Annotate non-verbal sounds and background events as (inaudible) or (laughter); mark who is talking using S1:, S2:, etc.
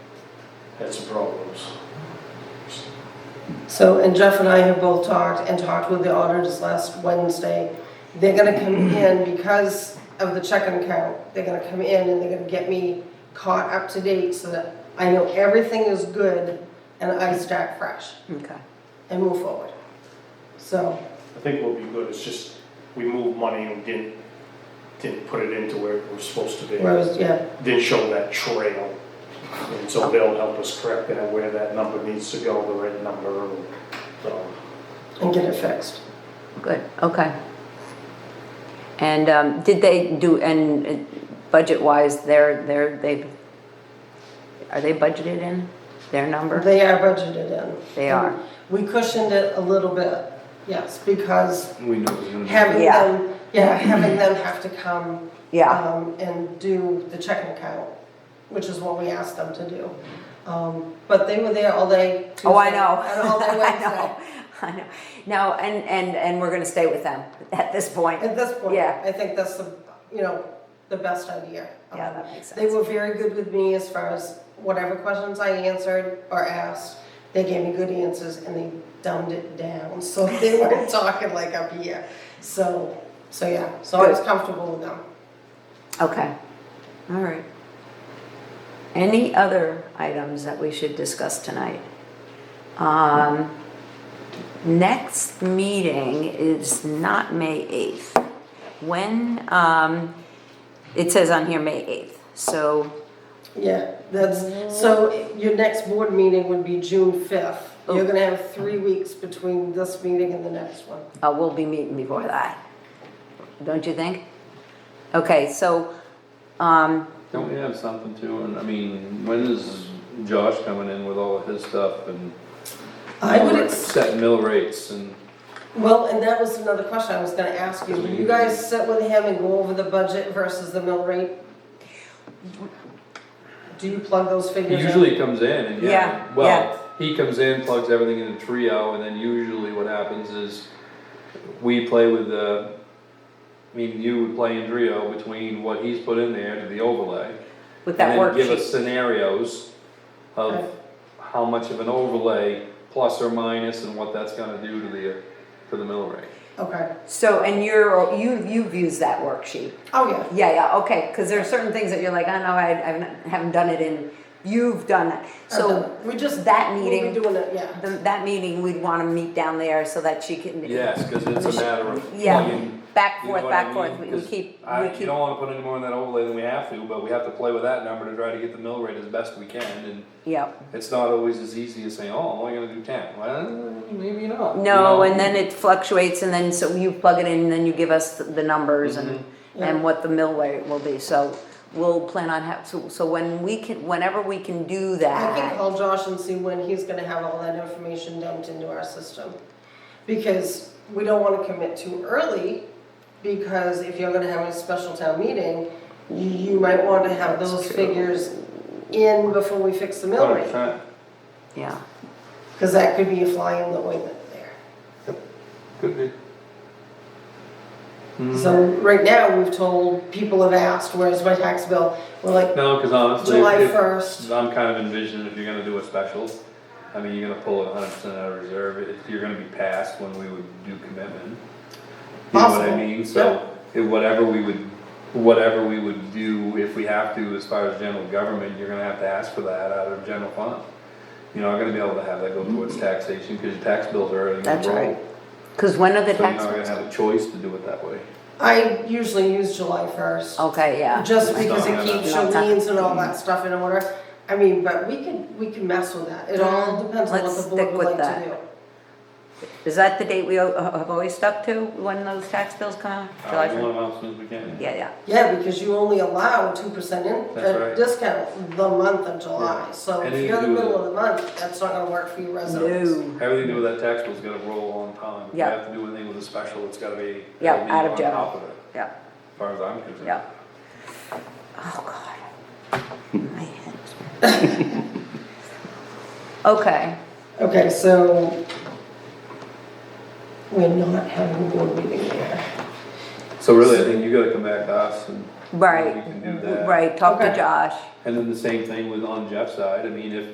S1: had some problems.
S2: So, and Jeff and I have both talked and talked with the auditors last Wednesday. They're gonna come in because of the checking account, they're gonna come in and they're gonna get me caught up to date so that I know everything is good and I start fresh
S3: Okay.
S2: and move forward. So,
S1: I think we'll be good, it's just, we moved money and didn't, didn't put it into where it was supposed to be.
S2: Rose, yeah,
S1: Didn't show that trail. And so they'll help us correct that, where that number needs to go, the right number, and, um, so.
S2: and get it fixed.
S3: Good, okay. And um, did they do, and uh, budget-wise, they're, they're, they've, are they budgeted in their number?
S2: They are budgeted in.
S3: They are.
S2: We cushioned it a little bit, yes, because
S4: We knew it was gonna be.
S2: having
S3: Yeah.
S2: them, yeah,
S3: (clears throat)
S2: having them have to come
S3: Yeah,
S2: um, and do the checking account, which is what we asked them to do. Um, but they were there all day Tuesday.
S3: oh, I know.
S2: And all day
S3: (laughs) I
S2: Wednesday.
S3: know. I know. No, and, and, and we're gonna stay with them at this point.
S2: At this point,
S3: Yeah.
S2: I think that's the, you know, the best idea.
S3: Yeah,
S2: Um,
S3: that makes
S2: They
S3: sense.
S2: were very good with me as far as whatever questions I answered or asked, they gave me good answers and they dumbed it down, so (laughs) they weren't
S3: (laughs)
S2: talking like up here. So, so yeah, so I was
S3: Good.
S2: comfortable with them.
S3: Okay, all right. Any other items that we should discuss tonight? Um, next meeting is not May eighth. When, um, it says on here May eighth, so,
S2: Yeah, that's, so your next board meeting would be June fifth. You're
S3: Oh.
S2: gonna have three weeks between this meeting and the next one.
S3: uh, we'll be meeting before that. Don't you think? Okay, so, um,
S4: Don't we have something too, and I mean, when is Josh coming in with all of his stuff and?
S2: I would, ex-
S4: Set mill rates and,
S2: well, and that was another question I was gonna ask you. Will you guys sit with him and go over the budget versus the mill rate? Do you plug those
S4: he
S2: figures in?
S4: usually comes in and
S3: Yeah,
S4: yeah,
S3: yeah.
S4: well, he comes in, plugs everything in a trio, and then usually what happens is we play with the, I mean, you would play in trio between what he's put in there to the overlay.
S3: with that
S4: And then give
S3: worksheet,
S4: us scenarios
S2: Right.
S4: of how much of an overlay, plus or minus, and what that's gonna do to the, to the mill rate.
S2: Okay,
S3: so, and you're, you, you've used that worksheet.
S2: oh yeah,
S3: Yeah, yeah, okay, because there are certain things that you're like, "Oh, I know, I, I haven't- haven't done it in, you've done that. So
S2: we just,
S3: that
S2: we'll
S3: meeting,
S2: be doing it, yeah.
S3: the- that meeting, we'd want to meet down there so that she can.
S4: Yes, cause it's a matter of
S3: Yeah,
S4: plugging.
S3: back
S4: you
S3: forth,
S4: know what I
S3: back forth,
S4: mean?
S3: we we
S4: 'Cause
S3: keep,
S4: I,
S3: we
S4: you
S3: keep,
S4: don't wanna put any more in that overlay than we have to, but we have to play with that number to try to get the mill rate as best we can, and
S3: yeah.
S4: it's not always as easy as saying, oh, I'm only gonna do ten, well, maybe not. you
S3: No,
S4: know?
S3: and then it fluctuates and then, so you plug it in and then you give us the- the numbers and,
S4: Mm-hmm.
S2: Mhm.
S3: and what the mill rate will be, so we'll plan on have, so, so when we can, whenever we can do
S2: I can
S3: that.
S2: call Josh and see when he's gonna have all that information dumped into our system. Because we don't wanna commit too early, because if you're gonna have a special town meeting, you might want to have those
S3: true.
S2: figures in before we fix the mill
S4: Hundred
S2: rate.
S4: percent.
S3: Yeah,
S2: Cause that could be a fly in the ointment there.
S4: Could be. Hmm.
S2: So right now, we've told, people have asked, where's my tax bill? We're like,
S4: No, cause honestly.
S2: July
S4: if-
S2: first.
S4: I'm kind of envisioning if you're gonna do a special, I mean, you're gonna pull it hundred percent out of reserve, if you're gonna be past when we would do commitment. You know what
S2: Possible,
S4: I mean, so, if whatever we would, whatever we would do, if we have to, as far as general government, you're gonna have to ask for that out of general fund. You're not gonna be able to have that go towards taxation, cause your tax bills are already gonna
S3: Mm-hmm. that's right.
S4: roll,
S3: Because when are the
S4: so you're
S3: tax?
S4: not gonna have a choice to do it that way.
S2: I usually use July first.
S3: Okay, yeah.
S2: Just because it
S4: Not
S2: keeps
S3: enough.
S2: Jolene's and all that stuff in order, I mean, but we can, we can mess with that, it all depends on what
S3: Mm-hmm. Let's
S2: the board
S3: stick
S2: would
S3: with
S2: like to do.
S3: Is that the date we o- have always stuck to, when those tax bills come out? July
S4: Uh, we
S3: 1st?
S4: want 'em out as soon as we can.
S3: Yeah, yeah,
S2: Yeah, because you only allow two percent in,
S4: That's
S2: uh,
S4: right.
S2: discount the month of July,
S4: Yeah.
S2: so if
S4: Anything
S2: you're
S4: to
S2: in the
S4: do
S2: middle
S4: with
S2: of the month, that's not gonna work for you residents.
S3: no,
S4: Everything to do with that tax bill's gotta roll on time. If you
S3: Yeah.
S4: have to do anything with a special, it's gotta be.
S3: Yeah,
S4: gotta be
S3: out of
S4: on
S3: general.
S4: top of it,
S3: yeah,
S4: As far as I'm concerned.
S3: yeah. Oh, God. My head.
S4: (laughs)
S3: Okay,
S2: Okay, so we're not having a board meeting there.
S4: So really, I think you gotta come back to us and.
S3: right,
S4: We can do that.
S3: right, talk to
S2: Okay.
S3: Josh.
S4: And then the same thing with on Jeff's side, I mean, if